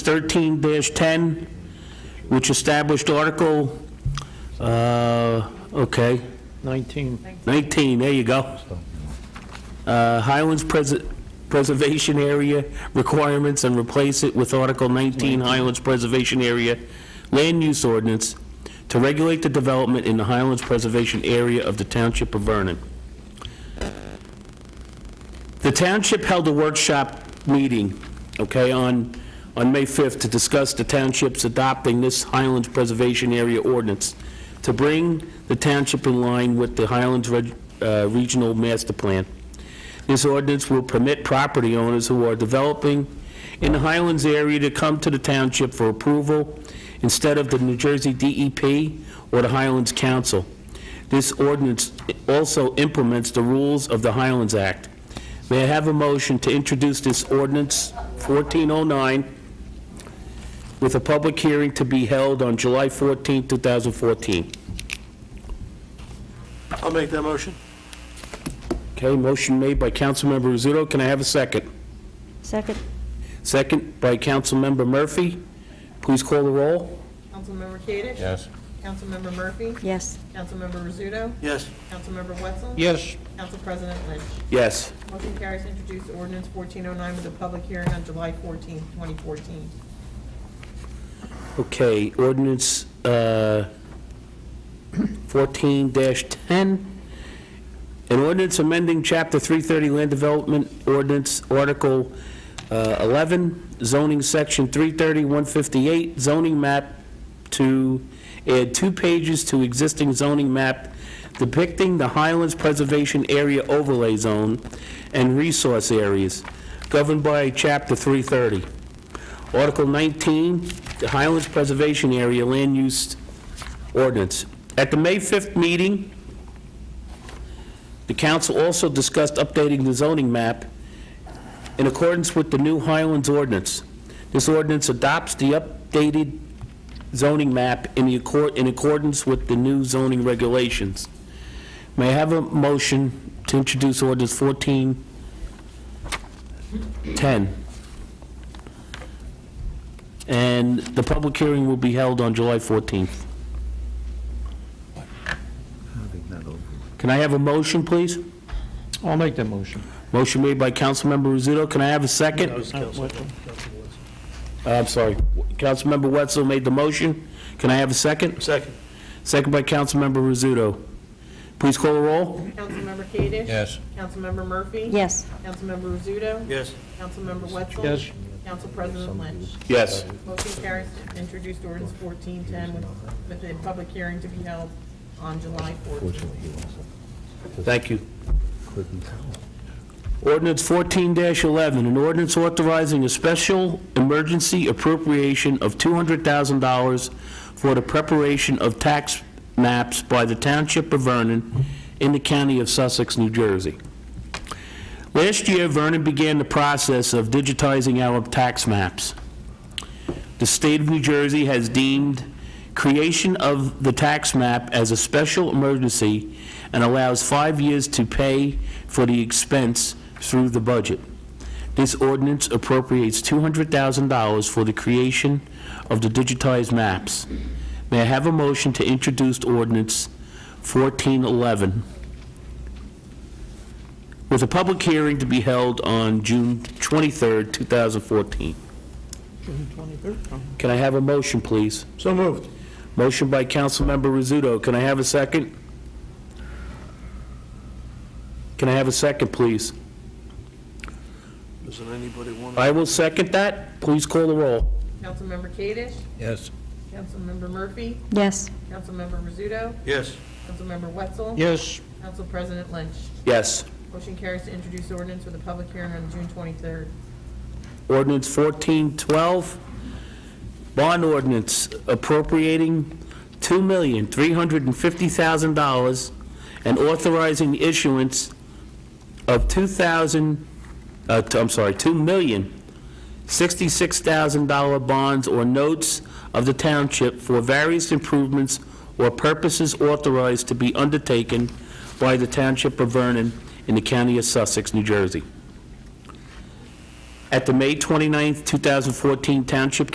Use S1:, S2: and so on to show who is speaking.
S1: 13-10, which established Article, uh, okay,
S2: 19.
S1: 19, there you go. Uh, Highlands Pres- Preservation Area requirements and replace it with Article 19 Highlands Preservation Area Land Use Ordinance to regulate the development in the Highlands Preservation Area of the Township of Vernon. The township held a workshop meeting, okay, on, on May 5th to discuss the township's adopting this Highlands Preservation Area ordinance to bring the township in line with the Highlands Reg- uh, Regional Master Plan. This ordinance will permit property owners who are developing in the Highlands area to come to the township for approval instead of the New Jersey DEP or the Highlands Council. This ordinance also implements the rules of the Highlands Act. May I have a motion to introduce this ordinance 1409 with a public hearing to be held on July 14, 2014?
S3: I'll make that motion.
S1: Okay, motion made by Councilmember Rizzuto. Can I have a second?
S4: Second.
S1: Second by Councilmember Murphy. Please call the roll.
S5: Councilmember Kadesh?
S6: Yes.
S5: Councilmember Murphy?
S4: Yes.
S5: Councilmember Rizzuto?
S3: Yes.
S5: Councilmember Wetzel?
S2: Yes,
S5: Council President Lynch?
S1: Yes.
S5: Motion carries to introduce ordinance 1409 with a public hearing on July 14, 2014.
S1: Okay, ordinance uh, 14-10, an ordinance amending Chapter 330 Land Development Ordinance, Article uh, 11, zoning section 330-158, zoning map to add two pages to existing zoning map depicting the Highlands Preservation Area Overlay Zone and resource areas governed by Chapter 330. Article 19, the Highlands Preservation Area Land Use Ordinance. At the May 5th meeting, the council also discussed updating the zoning map in accordance with the new Highlands ordinance. This ordinance adopts the updated zoning map in the accor- in accordance with the new zoning regulations. May I have a motion to introduce ordinance 1410? And the public hearing will be held on July 14th. Can I have a motion, please?
S2: I'll make that motion.
S1: Motion made by Councilmember Rizzuto. Can I have a second? Uh, I'm sorry. Councilmember Wetzel made the motion. Can I have a second?
S3: Second.
S1: Second by Councilmember Rizzuto. Please call the roll.
S5: Councilmember Kadesh?
S6: Yes.
S5: Councilmember Murphy?
S4: Yes.
S5: Councilmember Rizzuto?
S3: Yes.
S5: Councilmember Wetzel?
S2: Yes.
S5: Council President Lynch?
S1: Yes.
S5: Motion carries to introduce ordinance 1410 with with a public hearing to be held on July 14.
S1: Thank you. Ordinance 14-11, an ordinance authorizing a special emergency appropriation of $200,000 for the preparation of tax maps by the Township of Vernon in the County of Sussex, New Jersey. Last year, Vernon began the process of digitizing our tax maps. The state of New Jersey has deemed creation of the tax map as a special emergency and allows five years to pay for the expense through the budget. This ordinance appropriates $200,000 for the creation of the digitized maps. May I have a motion to introduce ordinance 1411 with a public hearing to be held on June 23rd, 2014? Can I have a motion, please?
S3: So moved.
S1: Motion by Councilmember Rizzuto. Can I have a second? Can I have a second, please?
S3: Doesn't anybody want to?
S1: I will second that. Please call the roll.
S5: Councilmember Kadesh?
S6: Yes.
S5: Councilmember Murphy?
S4: Yes.
S5: Councilmember Rizzuto?
S3: Yes.
S5: Councilmember Wetzel?
S2: Yes,
S5: Council President Lynch?
S1: Yes.
S5: Motion carries to introduce ordinance with a public hearing on June 23rd.
S1: Ordinance 1412, bond ordinance appropriating $2,350,000 and authorizing the issuance of 2,000, uh, t- I'm sorry, $2,066,000 bonds or notes of the township for various improvements or purposes authorized to be undertaken by the Township of Vernon in the County of Sussex, New Jersey. At the May 29, 2014 Township